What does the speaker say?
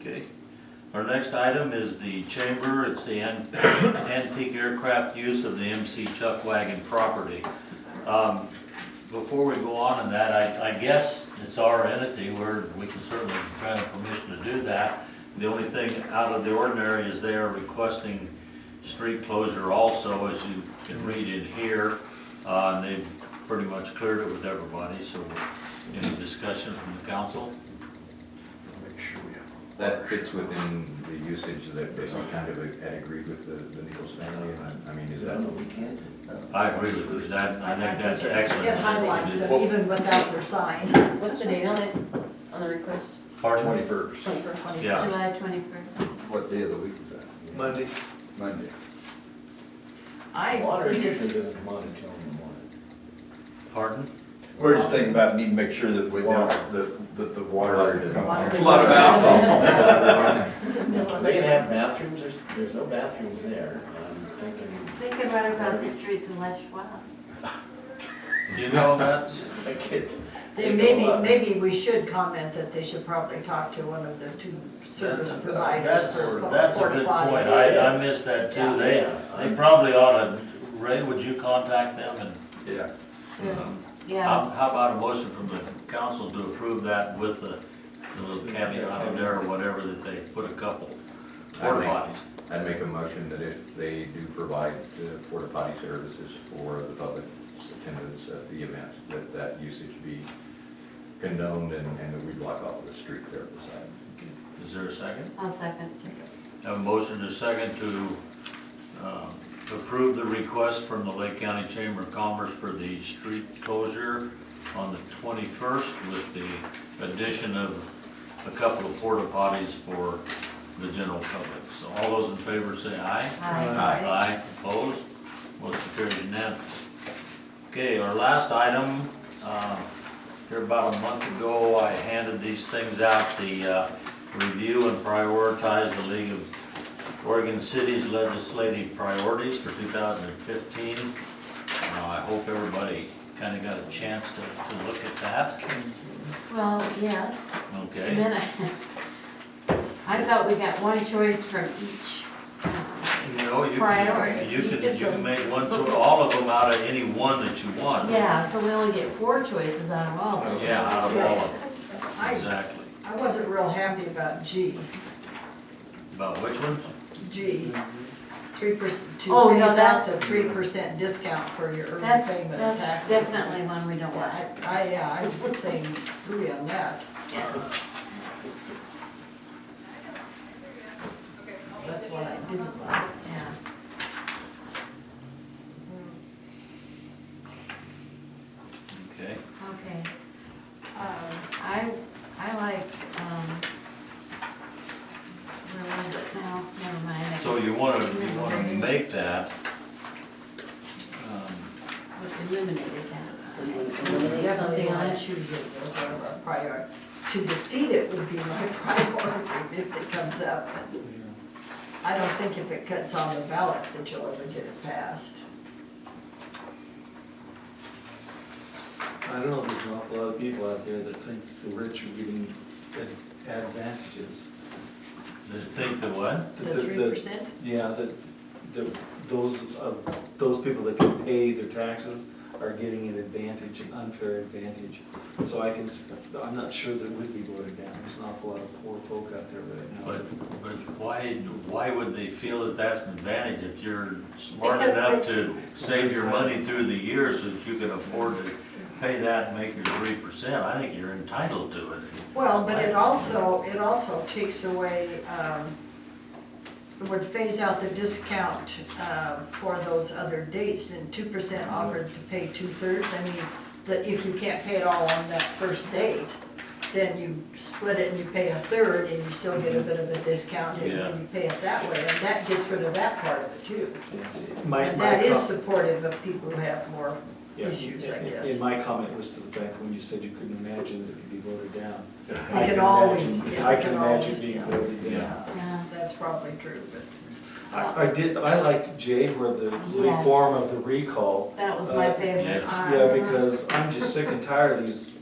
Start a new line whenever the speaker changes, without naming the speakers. Okay. Our next item is the chamber, it's the an- antique aircraft use of the MC Chuck Wagon property. Um, Before we go on in that, I, I guess it's our entity, where we can certainly grant permission to do that. The only thing out of the ordinary is they are requesting street closure also, as you can read in here. Uh, and they've pretty much cleared it with everybody, so any discussion from the council?
Make sure we have.
That fits within the usage that they kind of had agreed with the, the Nichols family, and I, I mean, is that,
weekend?
I agree with you, that, I think that's excellent.
It highlights it even without their sign.
What's the date on it, on the request?
Pardon?
Twenty-first.
Twenty-first.
Yeah.
July twenty-first.
What day of the week is that?
Monday.
Monday.
I
Water
think it's,
usually doesn't come on until in the morning.
Pardon?
We're just thinking about needing to make sure that we, don't- that, that the water
Water
doesn't
doesn't-
come.
Water
Flood of
doesn't-
alcohol.
it's the middle of
They can
the-
have bathrooms, there's, there's no bathrooms there, I'm thinking,
They could run across the street to Les Schwab.
You know, that's,
I could.
They maybe, maybe we should comment that they should probably talk to one of the two service providers
that's,
for
that's a
porta
good point,
potties.
I, I missed that too, they, they probably ought to, Ray, would you contact them and? uh,
Yeah,
Hmm.
Yeah,
How, how about a motion from the council to approve that with the, the little caveat in there or whatever, that they put a couple porta potties?
I'd make a motion that if they do provide uh, porta potty services for the public attendance at the event, that that usage be condoned and, and that we block off the street there at the side.
Is there a second?
I'll second.
Have a motion to second to, um, approve the request from the Lake County Chamber of Commerce for the street closure on the twenty-first with the addition of a couple of porta potties for the general public. So all those in favor say aye.
Aye.
Aye, opposed, motion carried unanimous. Okay, our last item, uh, here about a month ago, I handed these things out, the uh, review and prioritize the League of Oregon Cities legislative priorities for 2015. Uh, I hope everybody kind of got a chance to, to look at that,
Well, yes, and
okay?
then I, I thought we got one choice from each. uh,
You know, you
Priority.
can, you can, you
It's a-
can make one, cho- all of them out of any one that you want.
Yeah, so we only get four choices out of all of them.
Yeah, out of all of them,
I,
exactly.
I wasn't real happy about G,
About which ones?
G, three percent,
Oh,
to
no,
phase out
that's-
the three percent discount for your early
That's,
payment of
that's
taxes.
definitely one we don't want.
I, I, yeah, I would say three on that, that's what I didn't like.
Yeah.
Okay.
Okay. Um, I, I like, um, where was it now? Never mind. I
So you wanna, you wanna make that, um,
Eliminated that. So you would eliminate
Definitely
something on
want
it?
to choose it as one of our prior, to defeat it would be my priority if it comes up. I don't think if it cuts on the ballot that you'll ever get it passed.
I don't know, there's an awful lot of people out there that think the rich are getting ad- advantages.
the- think the what?
That-
The
that-
three
that-
percent,
Yeah, that, that those, uh, those people that can pay their taxes are getting an advantage, an unfair advantage. So I can, s- I'm not sure that would be voted down, there's an awful lot of poor folk out there right
But,
now.
but why, why would they feel that that's an advantage if you're smart
Because
enough
they-
to save your money through the year so that you can afford to pay that and make your three percent? I think you're entitled to it.
well, but it also, it also takes away, um, it would phase out the discount, uh, for those other dates and two percent offered to pay two thirds. I mean, that if you can't pay it all on that first date, then you split it and you pay a third and you still get a bit of a discount and
Yeah.
and you pay it that way. And that gets rid of that part of it too.
Yes, my-
And
my
that is
com-
supportive of people who have more
Yeah,
issues, I
and- and-
guess.
And my comment was to the fact when you said you couldn't imagine that it could be voted down.
We
I
can
imagine-
always, yeah,
I
we
can
can
imagine
always,
being
yeah.
voted down.
Yeah.
Yeah, that's probably true, but
I, I did, I liked J where the
Yes. Ah.
reform of the recall.
That was my
Uh,
favorite.
yes.
Yeah, because I'm just sick and tired of these